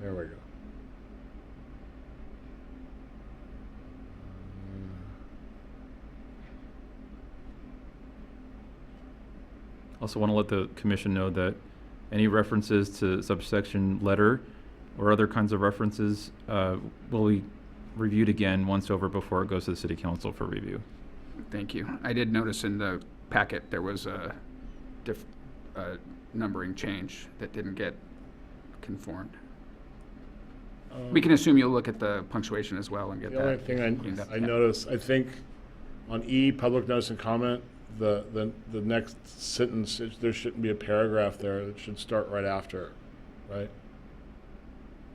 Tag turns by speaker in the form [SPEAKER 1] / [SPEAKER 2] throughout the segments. [SPEAKER 1] There we go.
[SPEAKER 2] Also want to let the commission know that any references to subsection letter or other kinds of references uh, will be reviewed again once over before it goes to the city council for review.
[SPEAKER 3] Thank you. I did notice in the packet, there was a diff, a numbering change that didn't get conformed. We can assume you'll look at the punctuation as well and get
[SPEAKER 1] The only
[SPEAKER 3] that.
[SPEAKER 1] thing
[SPEAKER 3] cleaned up.
[SPEAKER 1] I, I
[SPEAKER 3] Yeah.
[SPEAKER 1] noticed, I think on E, public notice and comment, the, the, the next sentence, it- there shouldn't be a paragraph there. It should start right after, right?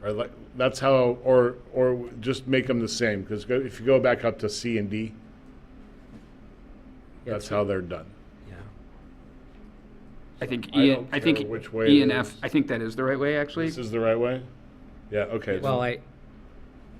[SPEAKER 1] Or like, that's how, or, or just make them the same, because if you go back up to C and D,
[SPEAKER 4] Yeah,
[SPEAKER 1] that's
[SPEAKER 4] so-
[SPEAKER 1] how they're done.
[SPEAKER 4] Yeah.
[SPEAKER 3] I think
[SPEAKER 1] I
[SPEAKER 3] E,
[SPEAKER 1] don't
[SPEAKER 3] I think
[SPEAKER 1] care which way
[SPEAKER 3] E and
[SPEAKER 1] it
[SPEAKER 3] F,
[SPEAKER 1] is.
[SPEAKER 3] I think that is the right way, actually.
[SPEAKER 1] This is the right way? Yeah, okay.
[SPEAKER 4] Well, I,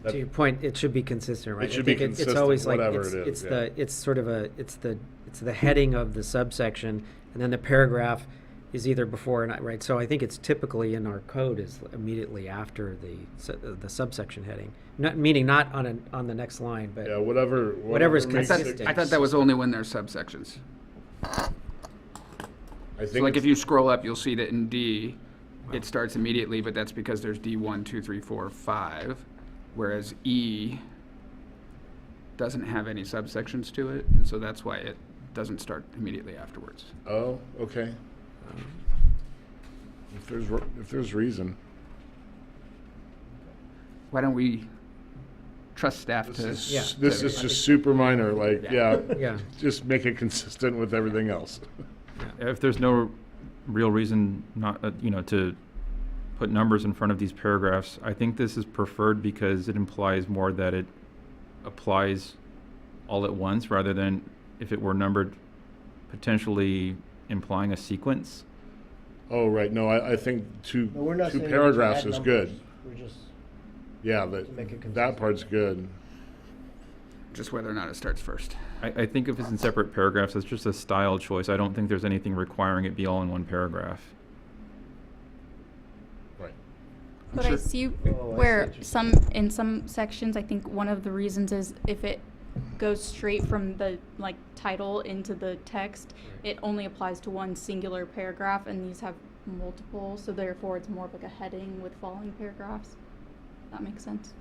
[SPEAKER 1] That-
[SPEAKER 4] to your point, it should be consistent, right? I
[SPEAKER 1] should be
[SPEAKER 4] think it-
[SPEAKER 1] consistent,
[SPEAKER 4] It's always like,
[SPEAKER 1] whatever
[SPEAKER 4] it's,
[SPEAKER 1] it is,
[SPEAKER 4] it's
[SPEAKER 1] yeah.
[SPEAKER 4] the, it's sort of a, it's the, it's the heading of the subsection, and then the paragraph is either before or not, right? So I think it's typically in our code is immediately after the, su- uh, the subsection heading. Not, meaning not on an, on the next line,
[SPEAKER 1] Yeah,
[SPEAKER 4] but,
[SPEAKER 1] whatever.
[SPEAKER 4] Whatever's
[SPEAKER 1] makes
[SPEAKER 3] I
[SPEAKER 1] it-
[SPEAKER 3] thought- I thought that was only when there's subsections.
[SPEAKER 1] I
[SPEAKER 3] So
[SPEAKER 1] think
[SPEAKER 3] like if
[SPEAKER 1] it's-
[SPEAKER 3] you scroll up, you'll see that in D, it starts immediately, but that's because there's D one, two, three, four, five, whereas E doesn't have any subsections to it, and so that's why it doesn't start immediately afterwards.
[SPEAKER 1] Oh, okay.
[SPEAKER 4] um,
[SPEAKER 1] If there's, re- if there's reason.
[SPEAKER 3] Why don't we trust staff
[SPEAKER 1] This
[SPEAKER 3] to?
[SPEAKER 1] is,
[SPEAKER 4] Yeah.
[SPEAKER 1] s- this is just super minor, like, yeah.
[SPEAKER 3] Yeah.
[SPEAKER 4] Yeah.
[SPEAKER 1] Just make it consistent with everything else.
[SPEAKER 2] If there's no real reason not, uh, you know, to put numbers in front of these paragraphs, I think this is preferred because it implies more that it applies all at once rather than if it were numbered, potentially implying a sequence.
[SPEAKER 1] Oh, right, no, I, I think two,
[SPEAKER 5] No, we're not
[SPEAKER 1] two
[SPEAKER 5] saying that we
[SPEAKER 1] paragraphs
[SPEAKER 5] add
[SPEAKER 1] is
[SPEAKER 5] numbers.
[SPEAKER 1] good.
[SPEAKER 5] We're just,
[SPEAKER 1] Yeah,
[SPEAKER 5] make
[SPEAKER 1] that,
[SPEAKER 5] it
[SPEAKER 1] that
[SPEAKER 5] consistent.
[SPEAKER 1] part's good.
[SPEAKER 3] Just whether or not it starts first.
[SPEAKER 2] I, I think if it's in separate paragraphs, it's just a style choice. I don't think there's anything requiring it be all in one paragraph.
[SPEAKER 1] Right.
[SPEAKER 6] But
[SPEAKER 5] Oh,
[SPEAKER 6] I see
[SPEAKER 5] I see
[SPEAKER 6] where
[SPEAKER 5] what you're
[SPEAKER 6] some, in some sections, I think one of the reasons is if it goes straight from the, like, title into the text, it only applies to one singular paragraph, and these have multiple, so therefore it's more of like a heading with following paragraphs. That makes sense.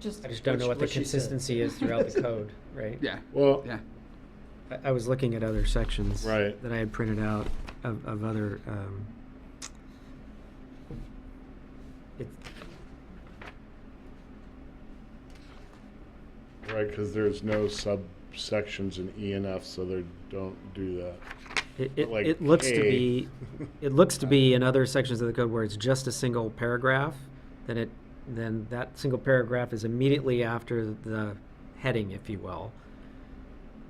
[SPEAKER 6] Just,
[SPEAKER 4] I just don't know
[SPEAKER 5] Which-
[SPEAKER 4] what the
[SPEAKER 5] which she said.
[SPEAKER 4] consistency is throughout the code, right?
[SPEAKER 3] Yeah,
[SPEAKER 1] Well,
[SPEAKER 3] yeah.
[SPEAKER 4] I, I was looking at other sections.
[SPEAKER 1] Right.
[SPEAKER 4] That I had printed out of, of other, um, it,
[SPEAKER 1] right, because there's no subsections in E and F, so they don't do that.
[SPEAKER 4] It,
[SPEAKER 1] But
[SPEAKER 4] it,
[SPEAKER 1] like
[SPEAKER 4] it looks
[SPEAKER 1] K-
[SPEAKER 4] to be, it looks to be in other sections of the code where it's just a single paragraph, then it, then that single paragraph is immediately after the heading, if you will.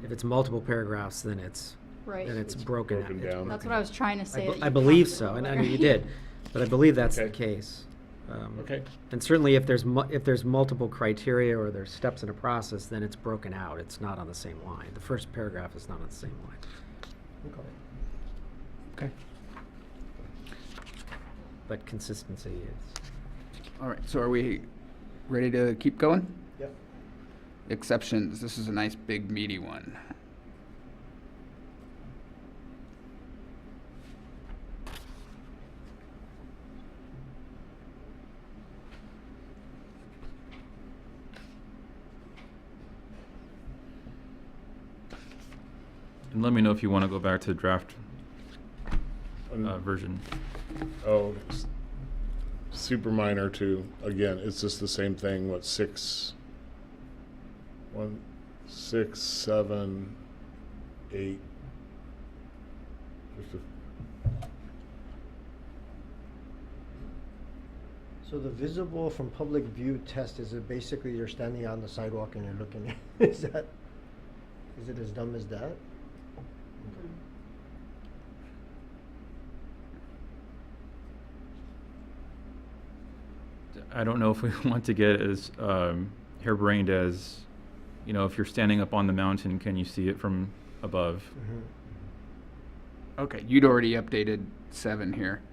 [SPEAKER 4] If it's multiple paragraphs, then it's,
[SPEAKER 6] right.
[SPEAKER 4] then it's
[SPEAKER 1] It's
[SPEAKER 4] broken.
[SPEAKER 1] broken
[SPEAKER 4] it's
[SPEAKER 1] down.
[SPEAKER 6] That's what I was trying to
[SPEAKER 4] I
[SPEAKER 6] say.
[SPEAKER 4] be-
[SPEAKER 6] that you
[SPEAKER 4] I believe
[SPEAKER 6] passed it
[SPEAKER 4] so, and I
[SPEAKER 6] over.
[SPEAKER 4] know you did, but I believe that's the
[SPEAKER 1] Okay.
[SPEAKER 4] case. Um,
[SPEAKER 1] Okay,
[SPEAKER 4] And certainly if there's mu- if there's multiple criteria or there's steps in a process, then it's broken out, it's not on the same line. The first paragraph is not on the same line.
[SPEAKER 3] Okay.
[SPEAKER 4] But consistency is.
[SPEAKER 3] All right, so are we ready to keep going?
[SPEAKER 5] yep.
[SPEAKER 3] Exceptions, this is a nice big meaty one.
[SPEAKER 2] And let me know if you want to go back to the draft
[SPEAKER 1] Um,
[SPEAKER 2] uh, version.
[SPEAKER 1] oh, s- super minor too, again, it's just the same thing, what, six? One, six, seven, eight. Just a
[SPEAKER 5] So the visible from public view test is it basically you're standing on the sidewalk and you're looking? Is that, is it as dumb as that?
[SPEAKER 2] I don't know if we want to get as um, harebrained as, you know, if you're standing up on the mountain, can you see it from above?
[SPEAKER 5] Mhm.
[SPEAKER 3] Okay, you'd already updated seven here.